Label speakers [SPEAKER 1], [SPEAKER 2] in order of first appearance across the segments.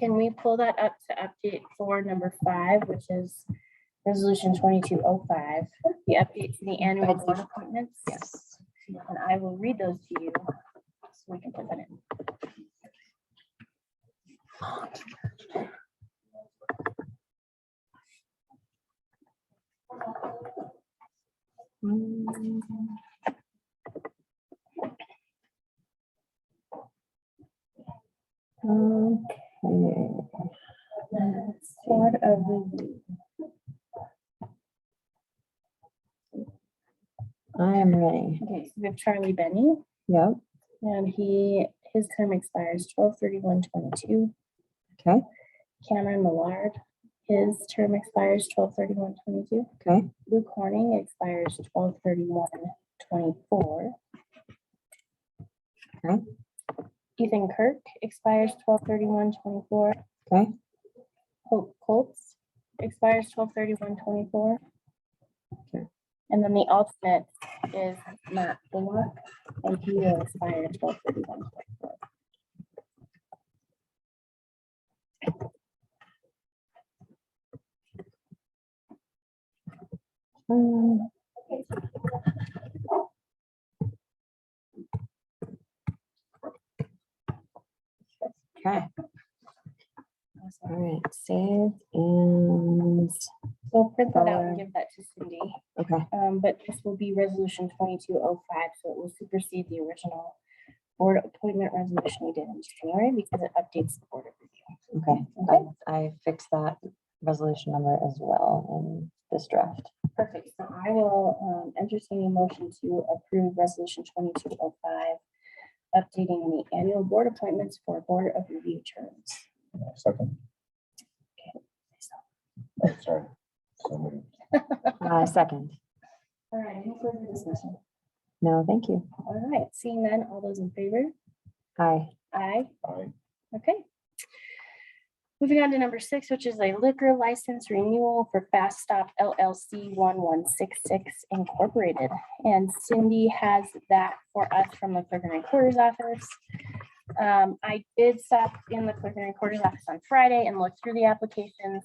[SPEAKER 1] Can we pull that up to update for number five, which is resolution twenty-two oh five, the update to the annual board appointments?
[SPEAKER 2] Yes.
[SPEAKER 1] And I will read those to you, so we can put that in.
[SPEAKER 2] Okay.
[SPEAKER 1] Board of Review.
[SPEAKER 2] I am ready.
[SPEAKER 1] Okay, so we have Charlie Benny,
[SPEAKER 2] Yep.
[SPEAKER 1] and he, his term expires twelve thirty-one twenty-two.
[SPEAKER 2] Okay.
[SPEAKER 1] Cameron Millard, his term expires twelve thirty-one twenty-two.
[SPEAKER 2] Okay.
[SPEAKER 1] Luke Horning expires twelve thirty-one twenty-four.
[SPEAKER 2] Okay.
[SPEAKER 1] Ethan Kirk expires twelve thirty-one twenty-four.
[SPEAKER 2] Okay.
[SPEAKER 1] Hope Colts expires twelve thirty-one twenty-four.
[SPEAKER 2] Okay.
[SPEAKER 1] And then the alternate is Matt Bullock, and he will expire twelve thirty-one twenty-four.
[SPEAKER 2] Um, Okay. All right, save and,
[SPEAKER 1] So print that out and
[SPEAKER 2] Alright.
[SPEAKER 1] give that to Cindy.
[SPEAKER 2] okay,
[SPEAKER 1] Um, but this will be resolution twenty-two oh five, so it will supersede the original board appointment resolution we did in January because it updates the board of review.
[SPEAKER 2] okay.
[SPEAKER 1] Okay.
[SPEAKER 2] I- I fixed that resolution number as well in this draft.
[SPEAKER 1] Perfect. So I will, um, entertain a motion to approve resolution twenty-two oh five, updating the annual board appointments for board of review terms.
[SPEAKER 3] Second. Oh, Sorry. So moved.
[SPEAKER 2] Uh, second.
[SPEAKER 1] All right, any further discussion?
[SPEAKER 2] No, thank you.
[SPEAKER 1] All right, seeing none, all those in favor?
[SPEAKER 2] Aye.
[SPEAKER 1] Aye.
[SPEAKER 3] Aye.
[SPEAKER 1] Okay. Moving on to number six, which is a liquor license renewal for Fast Stop LLC one one six six Incorporated. And Cindy has that for us from the clerk and recorder's office. Um, I did stop in the clerk and recorder's office on Friday and looked through the applications.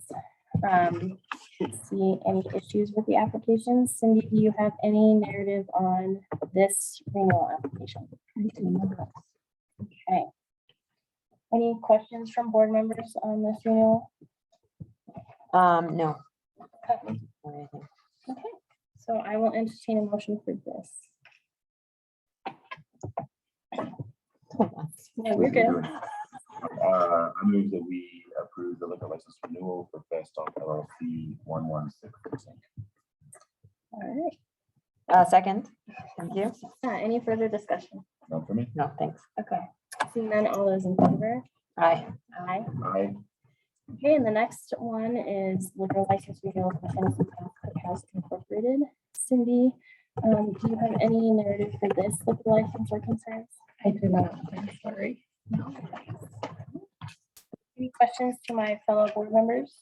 [SPEAKER 1] Um, didn't see any issues with the applications. Cindy, do you have any narrative on this renewal application? Okay. Any questions from board members on this renewal?
[SPEAKER 2] Um, no.
[SPEAKER 1] Okay.
[SPEAKER 2] Or anything.
[SPEAKER 1] Okay, so I will entertain a motion for this.
[SPEAKER 2] Hold on.
[SPEAKER 1] No, we're good.
[SPEAKER 3] Uh, I move that we approve the liquor license renewal for Best Stop LLC one one six six.
[SPEAKER 1] All
[SPEAKER 2] Uh, second. Thank you.
[SPEAKER 1] right, Uh, any further discussion?
[SPEAKER 3] Not for me.
[SPEAKER 2] No, thanks.
[SPEAKER 1] Okay, seeing none, all those in favor?
[SPEAKER 2] Aye.
[SPEAKER 1] Aye.
[SPEAKER 3] Aye.
[SPEAKER 1] Okay, and the next one is liquor license renewal for Tennessee Craft Cookhouse Incorporated. Cindy, um, do you have any narrative for this liquor license or concerns?
[SPEAKER 4] I do not, I'm sorry.
[SPEAKER 1] Any questions to my fellow board members?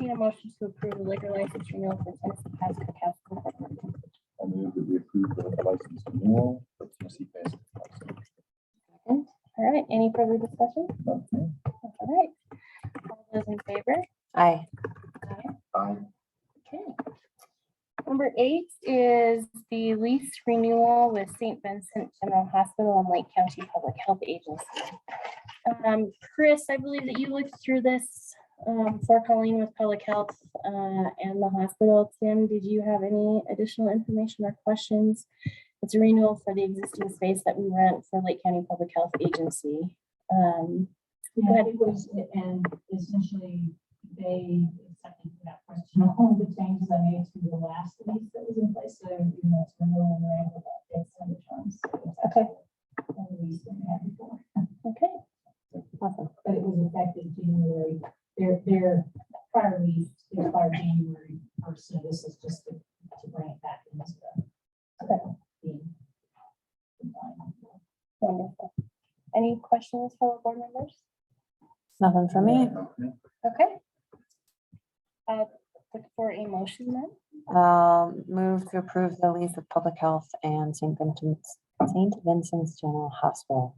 [SPEAKER 1] Need a motion to approve the liquor license renewal for Tennessee Pass Cookhouse. Incorporated.
[SPEAKER 3] I move that we approve the liquor license renewal for Tennessee Best. Cookhouse.
[SPEAKER 1] All right, any further discussion?
[SPEAKER 3] Not for me.
[SPEAKER 1] All right. All those in favor?
[SPEAKER 2] Aye.
[SPEAKER 3] Aye.
[SPEAKER 1] Okay. Number eight is the lease renewal with St. Vincent General Hospital and Lake County Public Health Agency. Um, Chris, I believe that you looked through this, um, for Colleen with Public Health, uh, and the hospital. Tim, did you have any additional information or questions? It's a renewal for the existing space that we rent for Lake County Public Health Agency. Um,
[SPEAKER 4] Yeah, it was, and essentially, they accepted that question, all the changes I made to the last lease that was in place, so, you know, it's renewal, and we're able to update some of the terms.
[SPEAKER 1] Okay.
[SPEAKER 4] And the lease that we had before,
[SPEAKER 1] okay.
[SPEAKER 2] Awesome.
[SPEAKER 4] but it was effective January, their, their prior lease, their prior January first, so this is just to to bring it back into the. the- the final.
[SPEAKER 1] Wonderful. Any questions for the board members?
[SPEAKER 2] Nothing for me.
[SPEAKER 3] Not for me.
[SPEAKER 1] Okay. Uh, look for a motion then.
[SPEAKER 2] Um, move to approve the lease of public health and St. Vincent's, St. Vincent's General Hospital